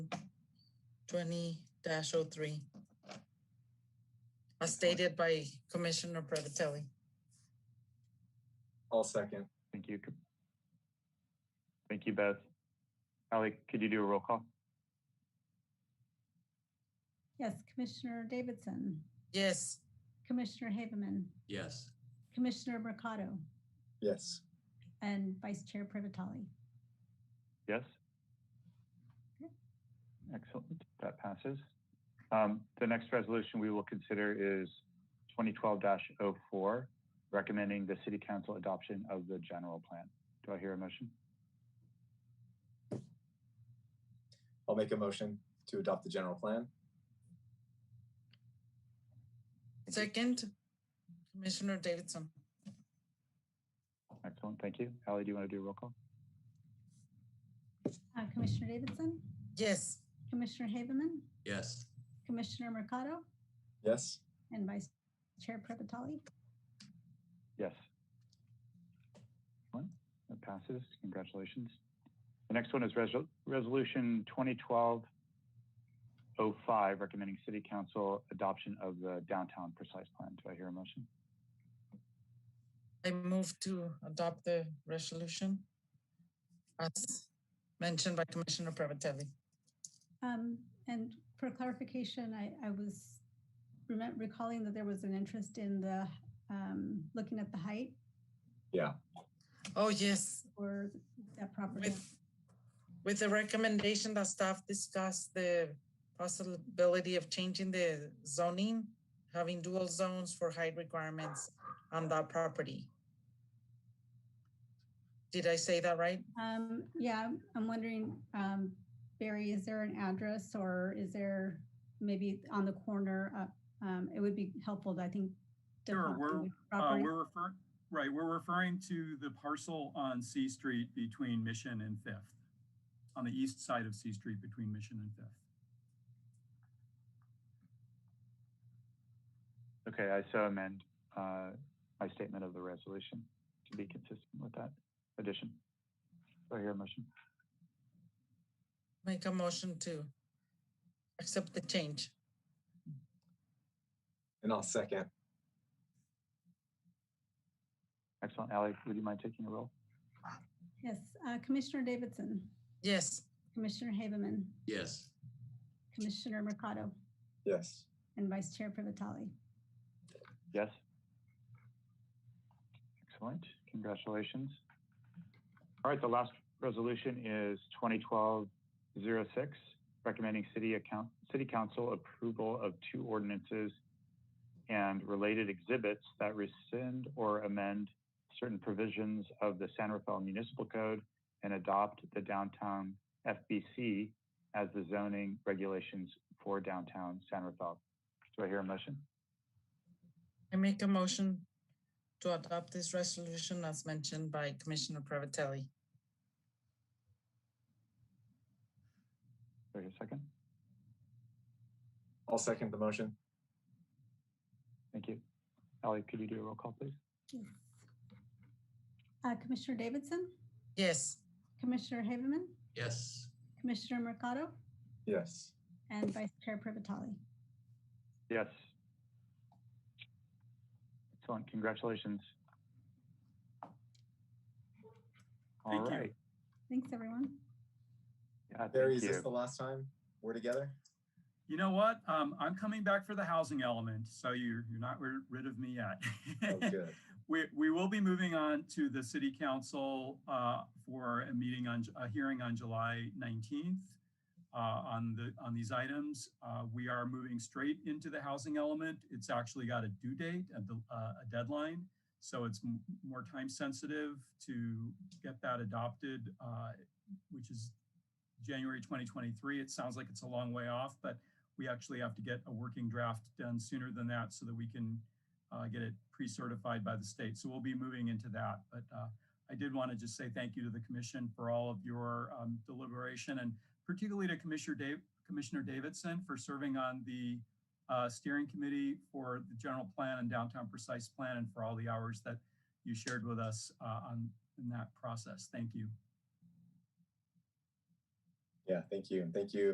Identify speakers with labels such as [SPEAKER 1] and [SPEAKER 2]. [SPEAKER 1] twenty 3 As stated by Commissioner Prevatelli.
[SPEAKER 2] I'll second.
[SPEAKER 3] Thank you. Thank you, Beth. Ally, could you do a roll call?
[SPEAKER 4] Yes, Commissioner Davidson,
[SPEAKER 1] Yes,
[SPEAKER 4] Commissioner Haveman,
[SPEAKER 5] Yes.
[SPEAKER 4] Commissioner Mercado,
[SPEAKER 2] Yes.
[SPEAKER 4] and Vice Chair Privatali.
[SPEAKER 3] Yes? Excellent, that passes. Um, The next resolution we will consider is 2012-04, recommending the city council adoption of the general plan. Do I hear a motion?
[SPEAKER 2] I'll make a motion to adopt the general plan.
[SPEAKER 1] second, Commissioner Davidson.
[SPEAKER 3] Excellent, thank you. Ally, do you want to do a roll call?
[SPEAKER 4] Uh, Commissioner Davidson,
[SPEAKER 1] Yes,
[SPEAKER 4] Commissioner Haveman,
[SPEAKER 5] Yes.
[SPEAKER 4] Commissioner Mercado,
[SPEAKER 2] Yes.
[SPEAKER 4] and Vice Chair Privatali.
[SPEAKER 3] Yes. One, that passes. Congratulations. The next one is resol- Resolution 2012-05, recommending city council adoption of the downtown precise plan. Do I hear a motion?
[SPEAKER 1] I move to adopt the resolution as mentioned by Commissioner Prevatelli.
[SPEAKER 4] Um, And for clarification, I, I was remem- recalling that there was an interest in the, um, looking at the height
[SPEAKER 1] Oh, yes,
[SPEAKER 4] or that property.
[SPEAKER 1] with, with the recommendation that staff discussed the possibility of changing the zoning, having dual zones for height requirements on that property. Did I say that right?
[SPEAKER 4] Um, Yeah, I'm- I'm wondering, um, Barry, is there an address or is there maybe on the corner? uh, um, It would be helpful, I think. to
[SPEAKER 6] Sure,
[SPEAKER 4] talk to
[SPEAKER 6] we're,
[SPEAKER 4] which
[SPEAKER 6] Uh,
[SPEAKER 4] property-
[SPEAKER 6] we're referring, right, we're referring to the parcel on C Street between Mission and Fifth, on the east side of C Street between Mission and Fifth.
[SPEAKER 3] Okay, I so amend uh, my statement of the resolution to be consistent with that addition. Do I hear a motion?
[SPEAKER 1] Make a motion to accept the change.
[SPEAKER 2] And I'll second.
[SPEAKER 3] Excellent. Ally, would you mind taking a roll?
[SPEAKER 4] Yes, uh, Commissioner Davidson,
[SPEAKER 1] Yes,
[SPEAKER 4] Commissioner Haveman,
[SPEAKER 5] Yes.
[SPEAKER 4] Commissioner Mercado,
[SPEAKER 2] Yes.
[SPEAKER 4] and Vice Chair Privatali.
[SPEAKER 3] Yes. Excellent. Congratulations. All right, the last resolution is 2012-06, recommending city account, city council approval of two ordinances and related exhibits that rescind or amend certain provisions of the San Rafael Municipal Code and adopt the downtown FBC as the zoning regulations for downtown San Rafael. Do I hear a motion?
[SPEAKER 1] I make a motion to adopt this resolution as mentioned by Commissioner Prevatelli.
[SPEAKER 3] Do I hear a second?
[SPEAKER 2] I'll second the motion.
[SPEAKER 3] Thank you. Ally, could you do a roll call, please?
[SPEAKER 4] Yes. Uh, Commissioner Davidson,
[SPEAKER 1] Yes,
[SPEAKER 4] Commissioner Haveman,
[SPEAKER 5] Yes.
[SPEAKER 4] Commissioner Mercado,
[SPEAKER 2] Yes.
[SPEAKER 4] and Vice Chair Privatali.
[SPEAKER 3] Yes. Excellent. Congratulations. All
[SPEAKER 6] Thank you.
[SPEAKER 3] right.
[SPEAKER 4] Thanks, everyone.
[SPEAKER 3] Yeah,
[SPEAKER 2] Barry,
[SPEAKER 3] thank
[SPEAKER 2] is this
[SPEAKER 3] you.
[SPEAKER 2] the last time we're together?
[SPEAKER 6] You know what? Um, I'm coming back for the housing element, so you're, you're not ri- rid of me
[SPEAKER 2] Oh,
[SPEAKER 6] yet.
[SPEAKER 2] good.
[SPEAKER 6] We, we will be moving on to the city council uh, for a meeting on, a hearing on July 19th uh, on the, on these items. Uh, We are moving straight into the housing element. It's actually got a due date, a del- uh, a deadline. So it's m- more time sensitive to get that adopted, uh, which is January 2023. It sounds like it's a long way off, but we actually have to get a working draft done sooner than that so that we can uh, get it pre-certified by the state. So we'll be moving into that. But uh, I did want to just say thank you to the commission for all of your um, deliberation and particularly to Commissioner Dave, Commissioner Davidson for serving on the uh, steering committee for the general plan and downtown precise plan and for all the hours that you shared with us uh, on in that process. Thank you.
[SPEAKER 2] Yeah, thank you. And thank you